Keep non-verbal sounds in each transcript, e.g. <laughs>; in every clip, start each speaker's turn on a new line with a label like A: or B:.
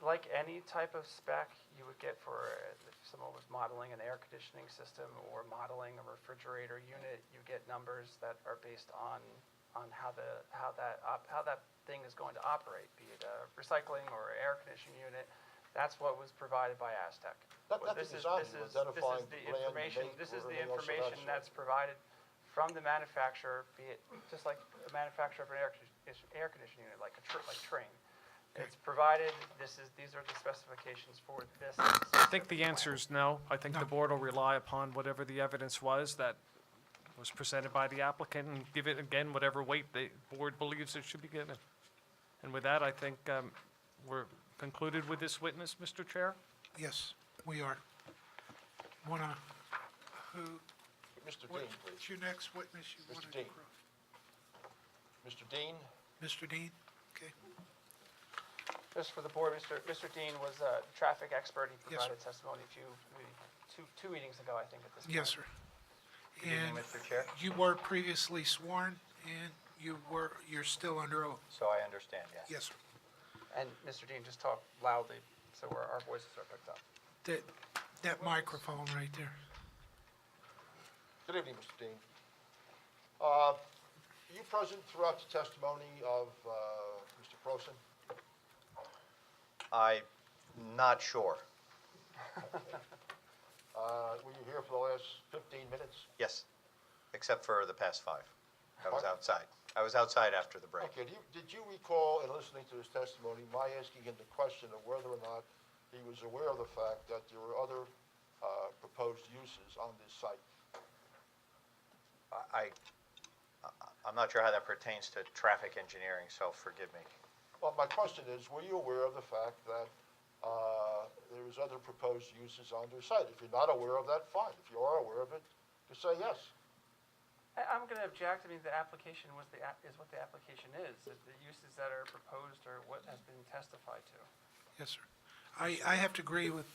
A: like any type of spec you would get for uh, if someone was modeling an air conditioning system or modeling a refrigerator unit, you get numbers that are based on, on how the, how that, op- how that thing is going to operate, be it a recycling or air conditioning unit. That's what was provided by Aztec.
B: That-
A: What
B: that
A: this is-
B: design
A: this is-
B: was
A: this
B: identifying
A: is the
B: the brand, the
A: information-
B: make,
A: This
B: or
A: is the
B: everything else of that
A: information
B: sort.
A: that's provided from the manufacturer, be it, just like the manufacturer of an air condition, air conditioning unit, like a tr- like train. It's provided, this is, these are the specifications for this.
C: I think the answer is no. I think the board will rely upon whatever the evidence was that was presented by the applicant and give it again whatever weight the board believes it should be given. And with that, I think um, we're concluded with this witness, Mr. Chair.
D: Yes, we are. Wanna, who,
B: Mr. Dean,
D: what-
B: please.
D: what's your next witness you
B: Mr.
D: wanna
B: Dean.
D: cross?
B: Mr. Dean?
D: Mr. Dean? Okay,
A: Just for the board, Mr. Mr. Dean was a traffic expert. He
D: Yes, sir.
A: provided testimony a few, maybe two, two meetings ago, I think, at this point.
D: yes, sir.
E: evening,
D: And
E: Mr. Chair.
D: you were previously sworn, and you were, you're still under oath.
E: So I understand, yes.
D: Yes, sir.
A: And Mr. Dean, just talk loudly so our our voices are picked up.
D: That, that microphone right there.
B: Good evening, Mr. Dean. Uh, Are you present throughout the testimony of uh, Mr. Prosen?
E: I'm not sure.
B: Uh, Were you here for the last 15 minutes?
E: Yes, except for the past five. I was
B: Pardon?
E: outside. I was outside after the break.
B: Okay, do you- did you recall in listening to his testimony, my asking him the question of whether or not he was aware of the fact that there were other uh, proposed uses on this site?
E: I, I- I'm not sure how that pertains to traffic engineering, so forgive me.
B: Well, my question is, were you aware of the fact that uh, there was other proposed uses on their site? If you're not aware of that, fine. If you are aware of it, you say yes.
A: I- I'm going to object, I mean, the application was the, app- is what the application is. The the uses that are proposed are what has been testified to.
D: Yes, sir. I, I have to agree with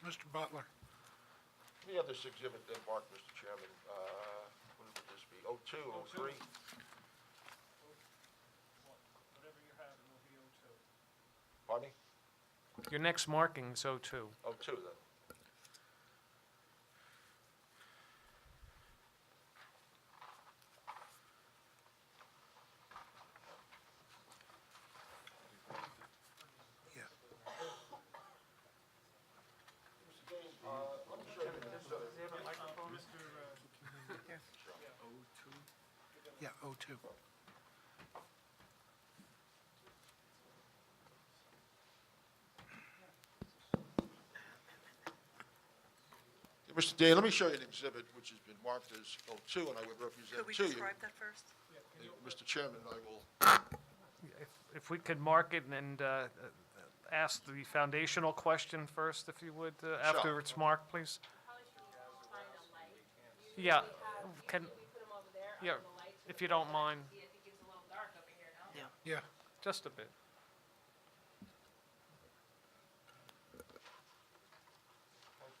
D: Mr. Butler.
B: The other exhibit then, Mark, Mr. Chairman, uh, what would this be, Oh, 02, 03? Whatever you have,
C: Your next marking is O2.
B: Pardon me? 02 Oh, then.
D: Yeah. Yeah, oh O2.
B: Mr. Dean, let me show you an exhibit which has been marked as 02, and I would represent
F: Could we
B: to you.
F: describe that first?
B: Uh, Mr. Chairman, I will,
C: If- If we could mark it and uh, uh, ask the foundational question first, if you would, uh, after it's marked, please. Yeah, can, yeah, if you don't mind,
D: Yeah,
C: just a bit.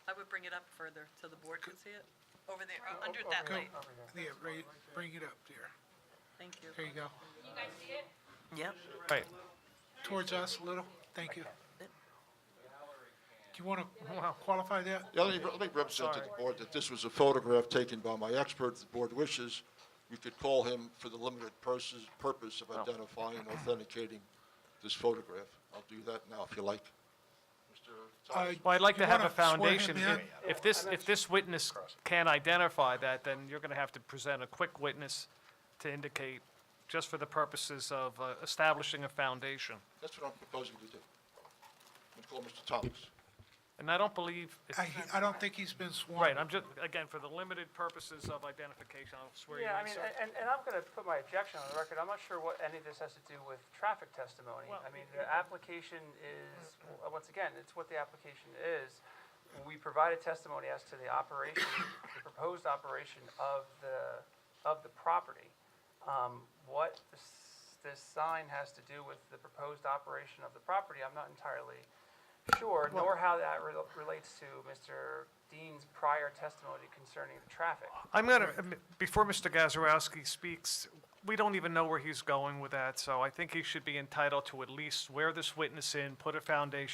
F: I would bring it up further so the board can see it. Over there, uh, under that
D: go,
F: light.
D: yeah, right, bring it up there.
F: Thank you.
D: There you go.
F: Yep.
C: Right,
D: Towards us a little, thank you. Do you want to
C: <laughs> Wow.
D: qualify that?
B: Yeah, let me, let me represent to the board that this was a photograph taken by my expert. If the board wishes, we could call him for the limited purposes, purpose of identifying and authenticating this photograph. I'll do that now if you like. Mr.
D: Uh,
B: Thomas?
C: well, I'd like
D: you
C: to have a
D: wanna swear him
C: foundation.
D: in?
C: If- If this, if this witness can't identify that, then you're going to have to present a quick witness to indicate, just for the purposes of uh, establishing a foundation.
B: That's what I'm proposing to do. I'm gonna call Mr. Thomas.
C: And I don't believe, it's-
D: I, I don't think he's been sworn.
C: right, I'm just, again, for the limited purposes of identification, I'll swear you in.
A: Yeah, I mean,
C: sir.
A: a- and, and I'm going to put my objection on the record. I'm not sure what any of this has to do with traffic testimony. I mean, the application is, w- once again, it's what the application is. We provided testimony as to the operation, the proposed operation of the, of the property. Um, What this, this sign has to do with the proposed operation of the property, I'm not entirely sure, nor how that rel- relates to Mr. Dean's prior testimony concerning the traffic.
C: I'm going to, before Mr. Gazarovski speaks, we don't even know where he's going with that, so I think he should be entitled to at least swear this witness in, put a foundation